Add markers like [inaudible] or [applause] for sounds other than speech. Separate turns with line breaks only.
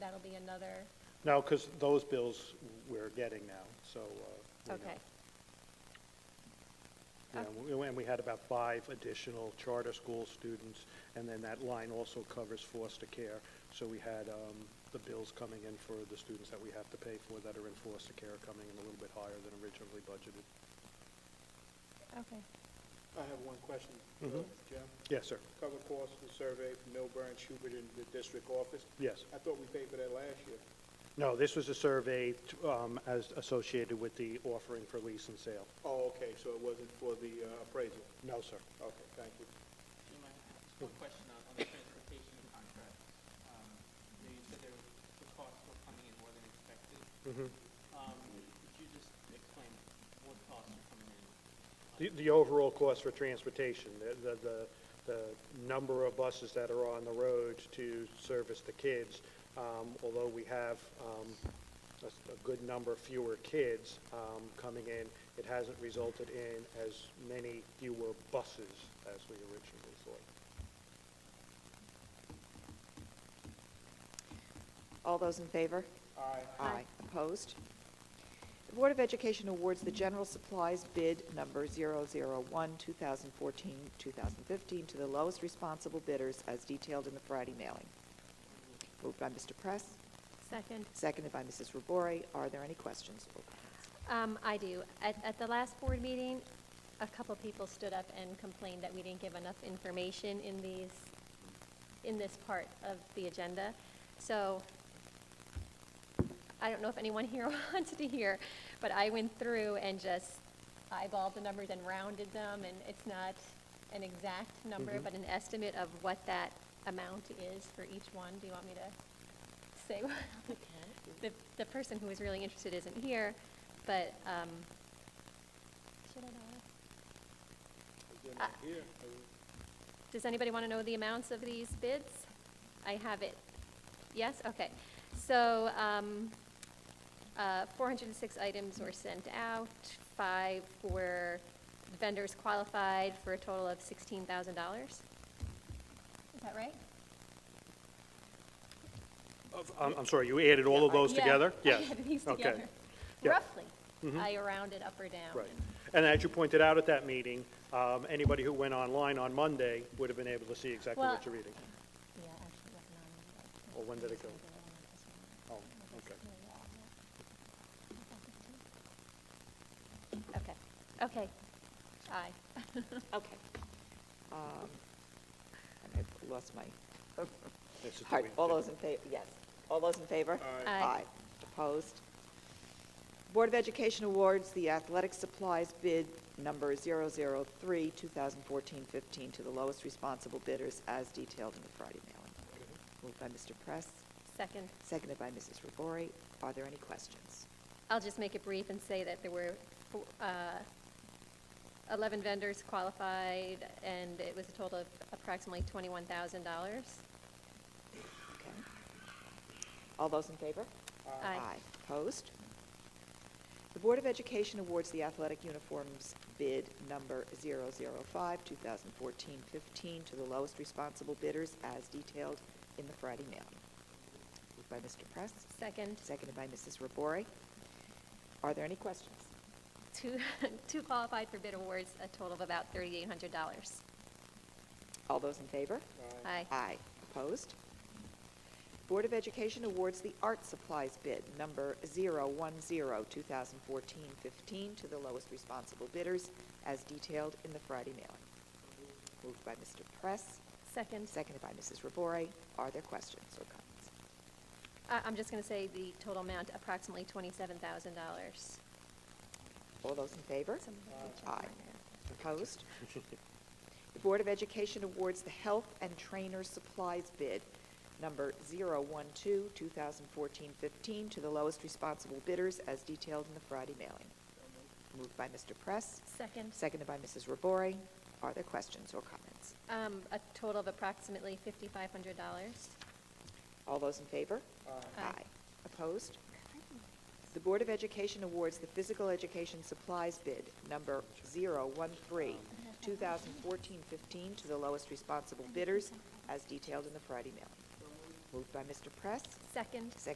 be another,
No, because those bills we're getting now, so. uh, we know.
okay.
Yeah, And we- and we had about five additional charter school students, and then that line also covers foster care. So we had um, the bills coming in for the students that we have to pay for that are in foster care coming in a little bit higher than originally budgeted.
Okay.
I have one question, uh,
Mhm.
Jim.
Yes, sir.
Cover cost of survey from Milburn, Schubert, and the district office.
Yes.
I thought we paid for that last year.
No, this was a survey t- um, as associated with the offering for lease and sale.
Oh, okay, so it wasn't for the uh, appraisal.
No, sir.
Okay, thank you.
Jim, I have just one question on, on the transportation contract. Um, you know, you said there, the costs were coming in more than expected.
Mhm.
Um, could you just explain what costs are coming in?
The- The overall cost for transportation, the- the, the, the number of buses that are on the road to service the kids, um, although we have um, a s- a good number fewer kids um, coming in, it hasn't resulted in as many fewer buses as we originally thought.
All those in favor?
Aye.
Aye. Opposed? The Board of Education awards the general supplies bid number 001, 2014, 2015 to the lowest responsible bidders as detailed in the Friday mailing. Moved by Mr. Press,
Second.
seconded by Mrs. Robori. Are there any questions or comments?
Um, I do. At, at the last board meeting, a couple people stood up and complained that we didn't give enough information in these, in this part of the agenda. So I don't know if anyone here [laughs] wants to hear, but I went through and just eyeballed the numbers and rounded them, and it's not an exact number, but an estimate of what that amount is for each one. Do you want me to say? what- [laughs] The, the person who was really interested isn't here, but, um, should I know?
Then
Ah.
here,
Does anybody want to know the amounts of these bids? I have it. Yes? Okay. So um, uh, 406 items were sent out, five were vendors qualified for a total of $16,000. Is that right?
I'm, I'm sorry, you added all of those
Yeah, [laughs]
together?
I
Yes.
added these
Okay.
together.
Yeah. Mm-hmm.
Roughly. I rounded up or down.
Right. And as you pointed out at that meeting, um, anybody who went online on Monday would have been able to see exactly what
Well-
you're reading.
Yeah, actually, that's not.
Well, when did it go? Oh, okay.
Okay, okay. Aye. [laughs]
Okay. Um, and I've lost my, all
That's the way
right,
to
all
do it.
those in favor, yes. All those in favor?
Aye.
Aye.
Opposed? Board of Education awards the athletic supplies bid number 003, 2014-15 to the lowest responsible bidders as detailed in the Friday mailing. Moved by Mr. Press,
Second,
seconded by Mrs. Robori. Are there any questions?
I'll just make it brief and say that there were four- uh, 11 vendors qualified, and it was a total of approximately $21,000.
Okay. All those in favor?
Aye.
Opposed? The Board of Education awards the athletic uniforms bid number 005, 2014-15 to the lowest responsible bidders as detailed in the Friday mailing. Moved by Mr. Press,
Second.
seconded by Mrs. Robori. Are there any questions?
Two, [laughs] two qualified for bid awards, a total of about $3,800.
All those in favor?
Aye.
Aye. Opposed? Board of Education awards the art supplies bid number 010-2014-15 to the lowest responsible bidders as detailed in the Friday mailing. Moved by Mr. Press,
Second.
seconded by Mrs. Robori. Are there questions or comments?
I- I'm just going to say the total amount, approximately $27,000.
All those in favor?
Something to check
Aye.
on there.
Opposed? The Board of Education awards the Health and Trainer Supplies bid, number 012-2014-15, to the lowest responsible bidders as detailed in the Friday mailing. Moved by Mr. Press.
Second.
Seconded by Mrs. Robori. Are there questions or comments?
Um, A total of approximately $5,500.
All those in favor?
Aye.
Opposed? The Board of Education awards the Physical Education Supplies bid, number 013, 2014-15, to the lowest responsible bidders, as detailed in the Friday mailing. Moved by Mr. Press,
Second.
seconded